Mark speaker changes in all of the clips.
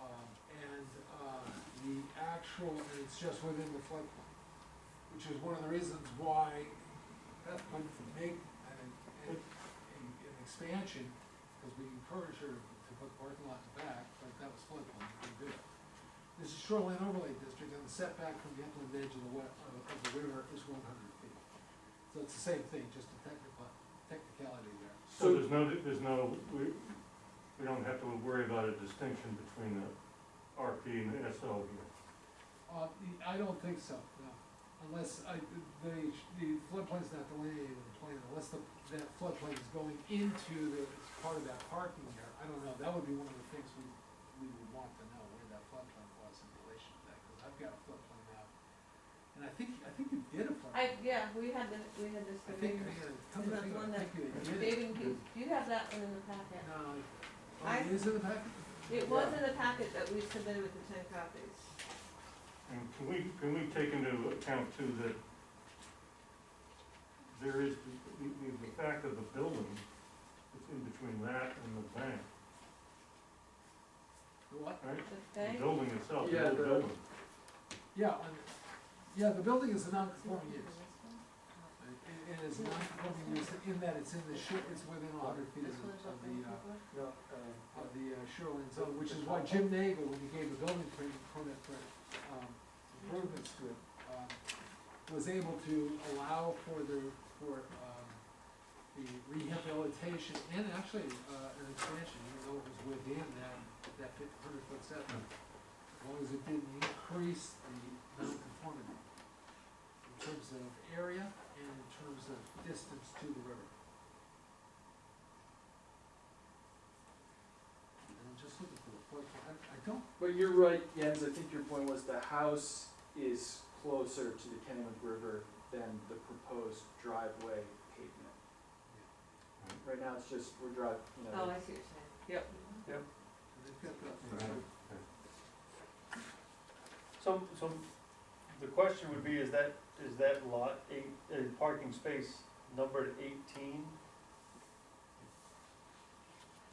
Speaker 1: Um, uh, actual, and it's just within the floodplain, which is one of the reasons why Beth would make an, an, an- an expansion, because we encouraged her to put the parking lot in the back, but that was floodplain, we did it. This is shoreline overlay district, and the setback from the upland edge of the wet, of the river is one hundred feet. So it's the same thing, just a technical, technicality there.
Speaker 2: So there's no, there's no, we, we don't have to worry about a distinction between the RP and the SL here.
Speaker 1: Uh, the- I don't think so, no, unless I, the, the floodplain's not delineated in the plan, unless the, that floodplain is going into the, it's part of that parking there, I don't know, that would be one of the things we, we would want to know where that floodplain was in relation to that, cause I've got a floodplain map. And I think, I think you did a
Speaker 3: I,
Speaker 1: floodplain.
Speaker 3: yeah, we had this, we had this
Speaker 1: I think,
Speaker 3: debate.
Speaker 1: you did a- come to
Speaker 3: That
Speaker 1: think of
Speaker 3: one
Speaker 1: it, I think you did. it.
Speaker 3: Bathing Peak, you have that one in the packet.
Speaker 1: No, I- oh,
Speaker 3: I-
Speaker 1: it is in the packet?
Speaker 3: It was in the packet that we submitted with the ten copies.
Speaker 2: And can we, can we take into account too that there is the, the, the fact of the building, it's in between that and the bank,
Speaker 1: The what?
Speaker 2: right?
Speaker 3: The
Speaker 2: The
Speaker 3: bank,
Speaker 2: building itself, the
Speaker 4: Yeah,
Speaker 2: old
Speaker 4: the-
Speaker 2: building.
Speaker 1: Yeah, and, yeah, the building is a non-conforming use. It it is non-conforming use in that it's in the shore, it's within a hundred feet of the, of the, uh,
Speaker 4: No, uh,
Speaker 1: of the uh, shoreline zone, which is why Jim Nagle, when he gave the building permit, permit for, um, improvements to it, um, was able to allow for the, for, um, the rehabilitation and actually, uh, an expansion, even though it was within that, that fifty hundred foot setback. As long as it didn't increase the non-conformity in terms of area and in terms of distance to the river. And I'm just looking for a point, I, I don't,
Speaker 4: But you're right, Jens, I think your point was the house is closer to the Kennewick River than the proposed driveway pavement. Right now, it's just, we're drive,
Speaker 1: uh,
Speaker 4: you
Speaker 3: oh,
Speaker 4: know,
Speaker 3: I see what you're saying, yep.
Speaker 1: they've got that.
Speaker 2: Right.
Speaker 5: So, so the question would be, is that, is that lot eight, uh, parking space numbered eighteen?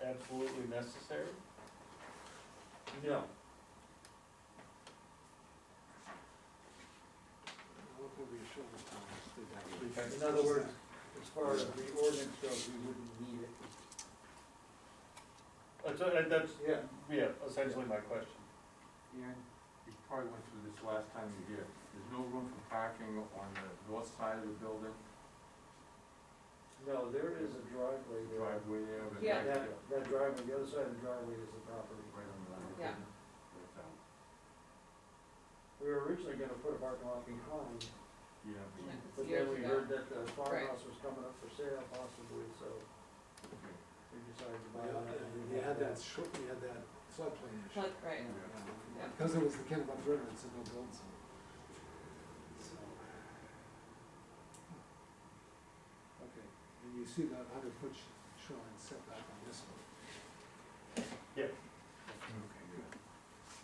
Speaker 5: Absolutely necessary?
Speaker 4: no,
Speaker 1: Look over your shoulder, Tom, just do that.
Speaker 4: In other words- as far as the ordinance goes, we wouldn't need it.
Speaker 5: That's, uh, that's,
Speaker 4: Yeah.
Speaker 5: yeah, essentially my question.
Speaker 6: Ian, you probably went through this last time you did, there's no room for parking on the north side of the building,
Speaker 4: No, there is a driveway
Speaker 6: the driveway there, but.
Speaker 3: Yeah.
Speaker 4: that driveway, the other side of the driveway is the property.
Speaker 6: Right on the line. uh,
Speaker 3: Yeah.
Speaker 6: That's out.
Speaker 4: We were originally gonna put a parking lot behind,
Speaker 6: Yeah, but you-
Speaker 3: It's years ago.
Speaker 4: that the
Speaker 3: farmhouse
Speaker 4: was coming up for sale possibly, so
Speaker 6: okay,
Speaker 4: we decided to
Speaker 1: uh, We had that short, we had that floodplain issue.
Speaker 3: But, right,
Speaker 1: Yeah, Because it was the Kennebunk River, it's a no build zone. So. Okay, and you see that hundred foot sh- shoreline setback on this one.
Speaker 5: Yeah.
Speaker 1: Okay, good.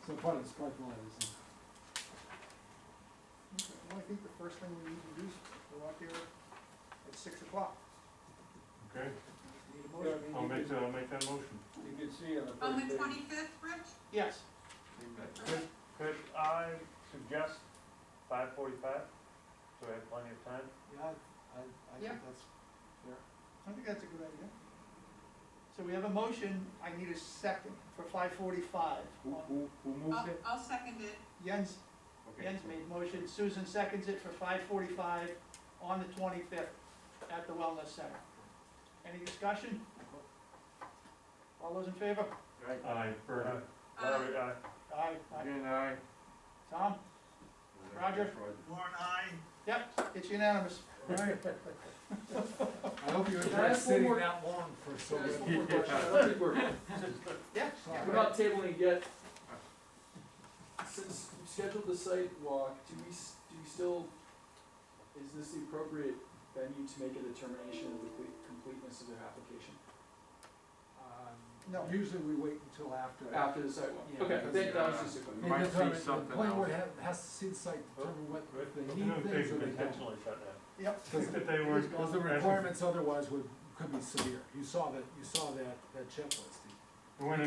Speaker 1: So part of this parking lot is in.
Speaker 4: Well, I think the first thing we need to do is go out there at six o'clock.
Speaker 2: Okay,
Speaker 4: Need a motion?
Speaker 2: I'll make, that- I'll make that motion.
Speaker 4: You can see on the
Speaker 7: On the twenty-fifth, Rich?
Speaker 4: Yes.
Speaker 7: Okay.
Speaker 5: Could I suggest five forty-five? So I have plenty of time?
Speaker 1: Yeah, I, I
Speaker 7: Yeah.
Speaker 1: think that's fair.
Speaker 4: I think that's a good idea. So we have a motion, I need a second for five forty-five.
Speaker 6: who, who, who moved
Speaker 7: I'll,
Speaker 6: it?
Speaker 7: I'll second it.
Speaker 4: Jens,
Speaker 6: Okay.
Speaker 4: Uh, Jens made motion, Susan seconds it for five forty-five on the twenty-fifth at the Wellness Center. Any discussion? All those in favor?
Speaker 6: Right,
Speaker 2: Aye, Bernie.
Speaker 5: Larry, aye.
Speaker 4: Uh, Aye, aye.
Speaker 6: Ian, aye.
Speaker 4: Tom? Roger.
Speaker 5: Warren, aye.
Speaker 4: Yep, it's unanimous.
Speaker 1: Right. I hope you
Speaker 4: Can
Speaker 1: enjoyed
Speaker 4: I ask one
Speaker 1: sitting
Speaker 4: more-
Speaker 1: that long for so
Speaker 4: Can I ask
Speaker 1: little.
Speaker 4: one more question? I don't think we're-
Speaker 1: Yeah.
Speaker 4: We're not tabling it yet. Since we scheduled the site walk, do we, s- do we still, is this the appropriate venue to make a determination of the cle- completeness of their application? No.
Speaker 1: Um, Usually we wait until after.
Speaker 4: After the site walk?
Speaker 1: Yeah,
Speaker 4: Okay,
Speaker 1: because,
Speaker 4: that that was
Speaker 6: uh,
Speaker 4: just a quick.
Speaker 1: They
Speaker 6: Might see
Speaker 1: determine- The
Speaker 6: something
Speaker 1: planning board
Speaker 6: else.
Speaker 1: ha- has to see the site, determine what
Speaker 2: Right.
Speaker 1: they
Speaker 2: I
Speaker 1: need
Speaker 2: don't
Speaker 1: things or
Speaker 2: think
Speaker 1: they
Speaker 2: we
Speaker 1: don't.
Speaker 5: Intentionally shut down.
Speaker 1: Because-
Speaker 2: That they weren't.
Speaker 1: Because the requirements otherwise would, could be severe. You saw that, you saw that, that checklist.
Speaker 2: When